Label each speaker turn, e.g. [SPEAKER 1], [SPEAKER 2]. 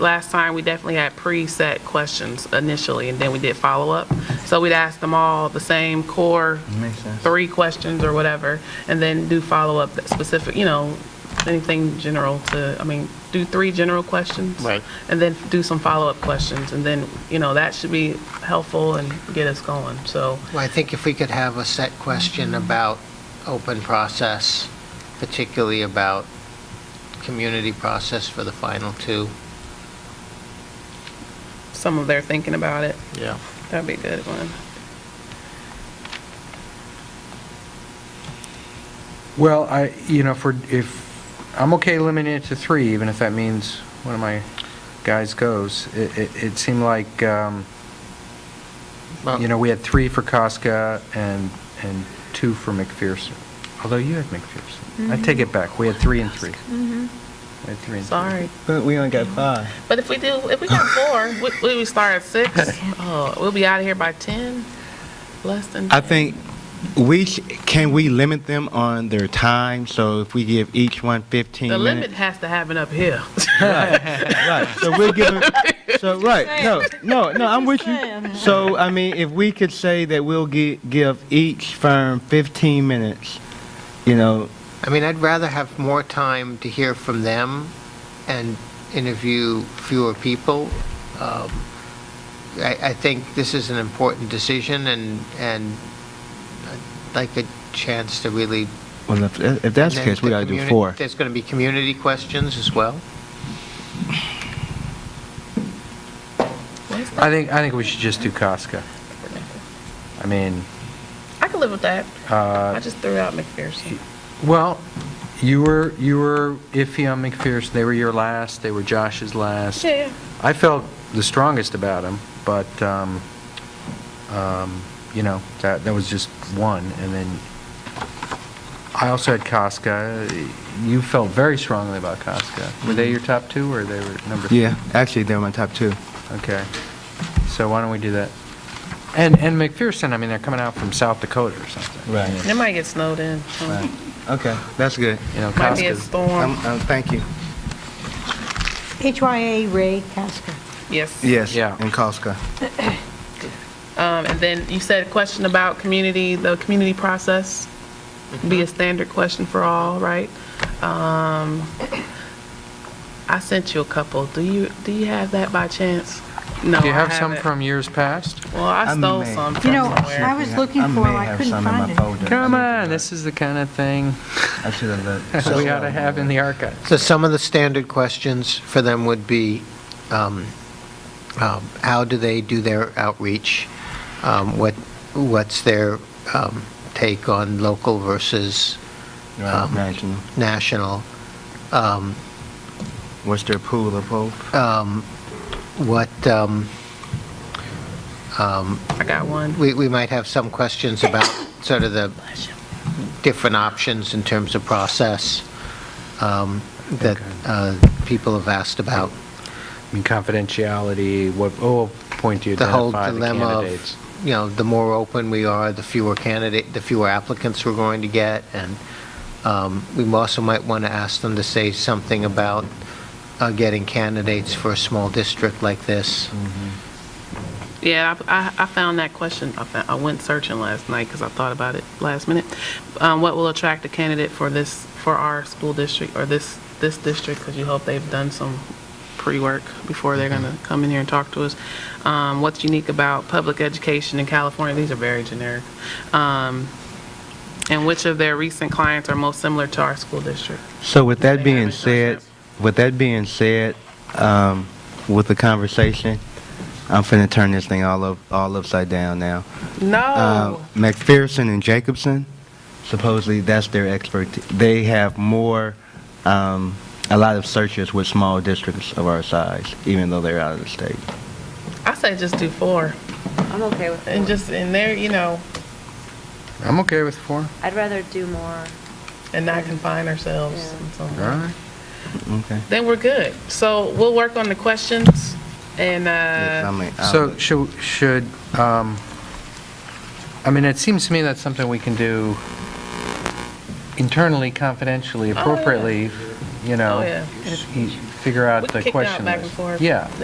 [SPEAKER 1] last time, we definitely had preset questions initially, and then we did follow-up. So we'd ask them all the same core
[SPEAKER 2] Makes sense.
[SPEAKER 1] three questions or whatever, and then do follow-up that specific, you know, anything general to, I mean, do three general questions.
[SPEAKER 3] Right.
[SPEAKER 1] And then do some follow-up questions, and then, you know, that should be helpful and get us going, so.
[SPEAKER 4] Well, I think if we could have a set question about open process, particularly about community process for the final two.
[SPEAKER 1] some of their thinking about it.
[SPEAKER 4] Yeah.
[SPEAKER 1] That'd be a good one.
[SPEAKER 2] Well, I, you know, for, if, I'm okay limiting it to three, even if that means one of my guys goes. It, it, it seemed like, um, you know, we had three for Casca and, and two for McPherson. Although you had McPherson. I take it back. We had three and three. We had three and three.
[SPEAKER 1] Sorry.
[SPEAKER 5] But we only got five.
[SPEAKER 1] But if we do, if we got four, we- we, we start at six, oh, we'll be out of here by 10, less than 10.
[SPEAKER 5] I think we, sh- can we limit them on their time? So if we give each one 15
[SPEAKER 1] The
[SPEAKER 5] minutes?
[SPEAKER 1] limit has to happen up here.
[SPEAKER 5] Right, so we're giving, so, right, no, no, no, I'm with you. So, I mean, if we could say that we'll gi- give each firm 15 minutes, you know,
[SPEAKER 4] I mean, I'd rather have more time to hear from them and interview fewer people. Um, I, I think this is an important decision and, and I'd like a chance to really.
[SPEAKER 5] well, if, if that's the case, we gotta do
[SPEAKER 4] Communi-
[SPEAKER 5] four.
[SPEAKER 4] There's going to be community questions as well.
[SPEAKER 2] I think, I think we should just do Casca. I mean,
[SPEAKER 1] I can live with that.
[SPEAKER 2] uh,
[SPEAKER 1] I just threw out McPherson.
[SPEAKER 2] Well, you were, you were iffy on McPherson. They were your last, they were Josh's last.
[SPEAKER 1] Yeah, yeah.
[SPEAKER 2] I felt the strongest about him, but, um, um, you know, that, that was just one. And then I also had Casca. You felt very strongly about Casca. Were they your top two or they were number? three?
[SPEAKER 5] Mm-hmm. Yeah, actually, they're my top two.
[SPEAKER 2] Okay. So why don't we do that? And, and McPherson, I mean, they're coming out from South Dakota or something.
[SPEAKER 5] Right.
[SPEAKER 1] It might get snowed in. so
[SPEAKER 5] Okay, that's good.
[SPEAKER 2] You know,
[SPEAKER 1] Might be a
[SPEAKER 2] Casca's,
[SPEAKER 5] Um,
[SPEAKER 1] storm.
[SPEAKER 5] um, thank you.
[SPEAKER 6] HYA Ray Casca.
[SPEAKER 1] Yes.
[SPEAKER 5] Yes,
[SPEAKER 2] Yeah.
[SPEAKER 5] and Koska.
[SPEAKER 1] Um, and then you said a question about community, the community process, be a
[SPEAKER 2] Mm-hmm.
[SPEAKER 1] standard question for all, right? Um, I sent you a couple. Do you, do you have that by chance? No,
[SPEAKER 2] do you
[SPEAKER 1] I
[SPEAKER 2] have some
[SPEAKER 1] haven't.
[SPEAKER 2] from years past?
[SPEAKER 1] Well, I
[SPEAKER 5] I
[SPEAKER 1] stole
[SPEAKER 5] may.
[SPEAKER 1] some
[SPEAKER 6] You
[SPEAKER 1] from
[SPEAKER 6] know, I
[SPEAKER 1] somewhere.
[SPEAKER 6] was looking for it, I couldn't find it.
[SPEAKER 2] Come on, this is the kind of thing
[SPEAKER 5] I should have looked.
[SPEAKER 2] we ought to have in the archives.
[SPEAKER 4] So some of the standard questions for them would be, um, um, how do they do their outreach? Um, What, what's their um, take on local versus
[SPEAKER 5] Right, national.
[SPEAKER 4] national? Um,
[SPEAKER 5] What's their pool of hope?
[SPEAKER 4] um, What, um, um,
[SPEAKER 1] I got one.
[SPEAKER 4] we we might have some questions about sort of the different options in terms of process um, that uh, people have asked about.
[SPEAKER 2] I mean, confidentiality, what, oh, point do you
[SPEAKER 4] the whole
[SPEAKER 2] identify the
[SPEAKER 4] dilemma
[SPEAKER 2] candidates?
[SPEAKER 4] of, you know, the more open we are, the fewer candidate, the fewer applicants we're going to get, and um, we also might want to ask them to say something about uh, getting candidates for a small district like this.
[SPEAKER 1] Yeah, I, I I found that question, I found- I went searching last night because I thought about it last minute. Um, What will attract a candidate for this, for our school district or this, this district? Because you hope they've done some pre-work before they're going to come in here and talk to us. Um, What's unique about public education in California? These are very generic. Um, And which of their recent clients are most similar to our school district?
[SPEAKER 5] So with
[SPEAKER 1] They
[SPEAKER 5] that being
[SPEAKER 1] haven't done
[SPEAKER 5] said, with that being said, um, with the conversation, I'm finna turn this thing all up, all upside down now. Uh,
[SPEAKER 6] Oh.
[SPEAKER 1] No.
[SPEAKER 5] McPherson and Jacobson, supposedly that's their expert. They have more, um, a lot of searches with small districts of our size, even though they're out of the state.
[SPEAKER 1] I say just do four
[SPEAKER 7] I'm okay with
[SPEAKER 1] and
[SPEAKER 7] it.
[SPEAKER 1] just, and there, you know,
[SPEAKER 2] I'm okay with four.
[SPEAKER 7] I'd rather do more.
[SPEAKER 1] and not confine ourselves
[SPEAKER 7] Yeah.
[SPEAKER 1] in
[SPEAKER 2] All
[SPEAKER 1] some way.
[SPEAKER 2] right.
[SPEAKER 5] Okay.
[SPEAKER 1] Then we're good. So we'll work on the questions and,
[SPEAKER 5] Yes, I
[SPEAKER 1] uh,
[SPEAKER 5] mean, I'll-
[SPEAKER 2] So should, should, um, I mean, it seems to me that's something we can do internally, confidentially, appropriately, you know.
[SPEAKER 1] Oh, yeah.
[SPEAKER 2] s- e, figure out
[SPEAKER 1] We
[SPEAKER 2] the
[SPEAKER 1] kicked it out
[SPEAKER 2] question
[SPEAKER 1] back and
[SPEAKER 2] list.
[SPEAKER 1] forth.
[SPEAKER 2] Yeah.